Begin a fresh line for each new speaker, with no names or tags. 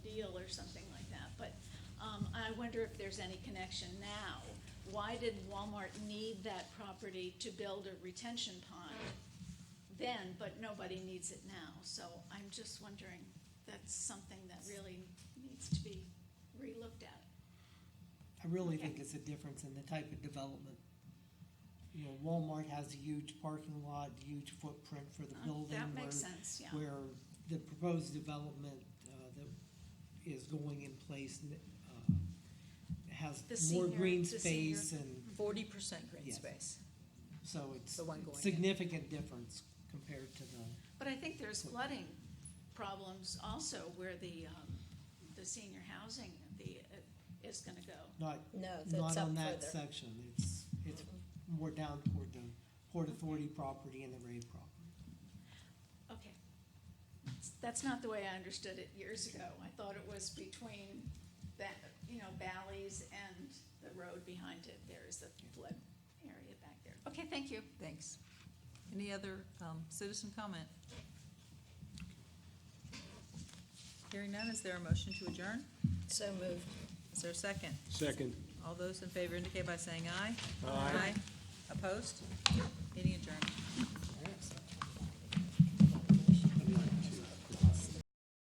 um, wonder if there's any connection now. Why did Walmart need that property to build a retention pond then, but nobody needs it now? So I'm just wondering, that's something that really needs to be relooked at.
I really think it's a difference in the type of development. You know, Walmart has a huge parking lot, huge footprint for the
Uh,
building.
That makes
where-
sense, yeah.
Where the proposed development, uh, that is going in place, uh, has
The
more
senior-
green
the senior-
space and,
Forty percent green
Yes.
space,
so it's
the one going in.
significant difference compared to the.
But I think there's flooding problems also where the, um, the senior housing, the, uh, is gonna go.
Not,
No,
not
that's up
on that
further.
section, it's, it's more down toward the Port Authority property and the Ray property.
Okay. That's not the way I understood it years ago. I thought it was between that, you know, valleys and the road behind it. There is a flood area back there. Okay, thank you.
thanks. Any other um, citizen comment? Hearing none, is there a motion to adjourn?
So moved.
Is there a second?
Second.
All those in favor indicate by saying aye. Aye. Opposed? Meeting adjourned.